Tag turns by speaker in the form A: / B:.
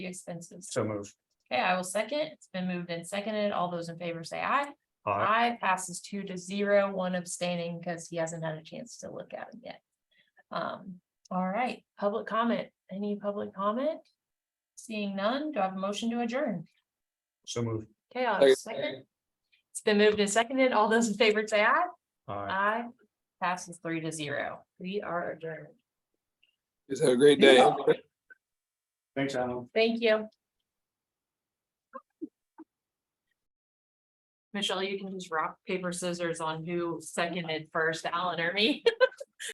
A: the expenses.
B: So moved.
A: Okay, I will second. It's been moved and seconded. All those in favor say aye.
B: Aye.
A: Aye passes two to zero, one abstaining because he hasn't had a chance to look at it yet. Um, all right, public comment. Any public comment? Seeing none, do I have a motion to adjourn?
B: So moved.
A: Okay, I'll have a second. It's been moved and seconded. All those in favor say aye.
B: Aye.
A: Aye passes three to zero. We are adjourned.
C: Just have a great day.
B: Thanks, Alan.
A: Thank you. Michelle, you can just rock, paper, scissors on who seconded first, Alan or me.